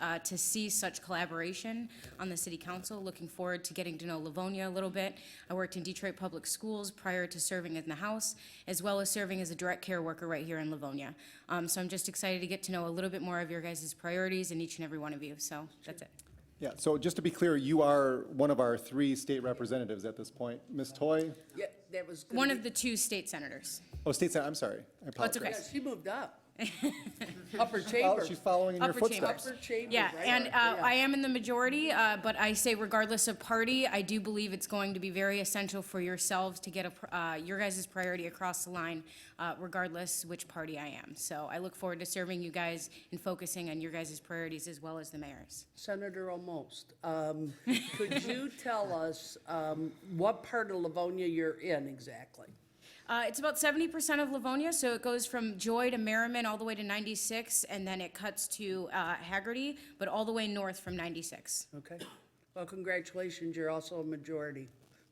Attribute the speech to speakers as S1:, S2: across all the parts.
S1: uh, to see such collaboration on the city council. Looking forward to getting to know Livonia a little bit. I worked in Detroit Public Schools prior to serving in the House, as well as serving as a direct care worker right here in Livonia. Um, So I'm just excited to get to know a little bit more of your guys' priorities and each and every one of you. So that's it.
S2: Yeah, so just to be clear, you are one of our three state representatives at this point. Ms. Toy,
S3: Yeah, that was. gonna
S1: One
S3: be-
S1: of the two state senators.
S2: oh, state sen- I'm sorry, I
S1: That's
S2: apologize.
S1: okay.
S3: Yeah, she moved up. Upper
S2: Oh,
S3: chamber.
S2: She's following in your
S1: Upper chamber.
S2: footsteps.
S3: Upper chamber,
S1: Yeah,
S3: right?
S1: and uh,
S3: Yeah.
S1: I am in the majority, uh, but I say regardless of party, I do believe it's going to be very essential for yourselves to get a pr- uh, your guys' priority across the line, uh, regardless which party I am. So I look forward to serving you guys and focusing on your guys' priorities as well as the mayor's.
S3: Senator Almost, um, could you tell us, um, what part of Livonia you're in exactly?
S1: Uh, It's about 70% of Livonia, so it goes from Joy to Merriman all the way to 96, and then it cuts to uh, Hagerty, but all the way north from 96.
S3: Okay. Well, congratulations, you're also a majority.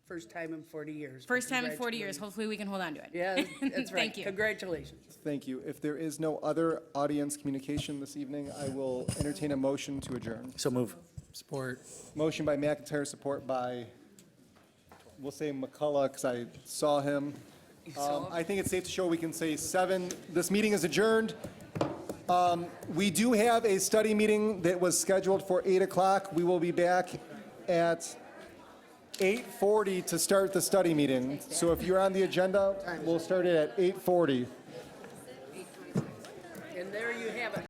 S3: First time in 40 years. but
S1: First time in 40 years,
S3: congratulations.
S1: hopefully we can hold on to it.
S3: Yeah, that's right.
S1: Thank you.
S3: Congratulations.
S2: Thank you. If there is no other audience communication this evening, I will entertain a motion to adjourn.
S4: So move. Support.
S2: Motion by McIntyre, support by, we'll say McCullough, because I saw him. Um, I think it's safe to show we can say seven, this meeting is adjourned. Um, We do have a study meeting that was scheduled for 8 o'clock. We will be back at 8:40 to start the study meeting. So if you're on the agenda, we'll start it at 8:40.
S3: And there you have it.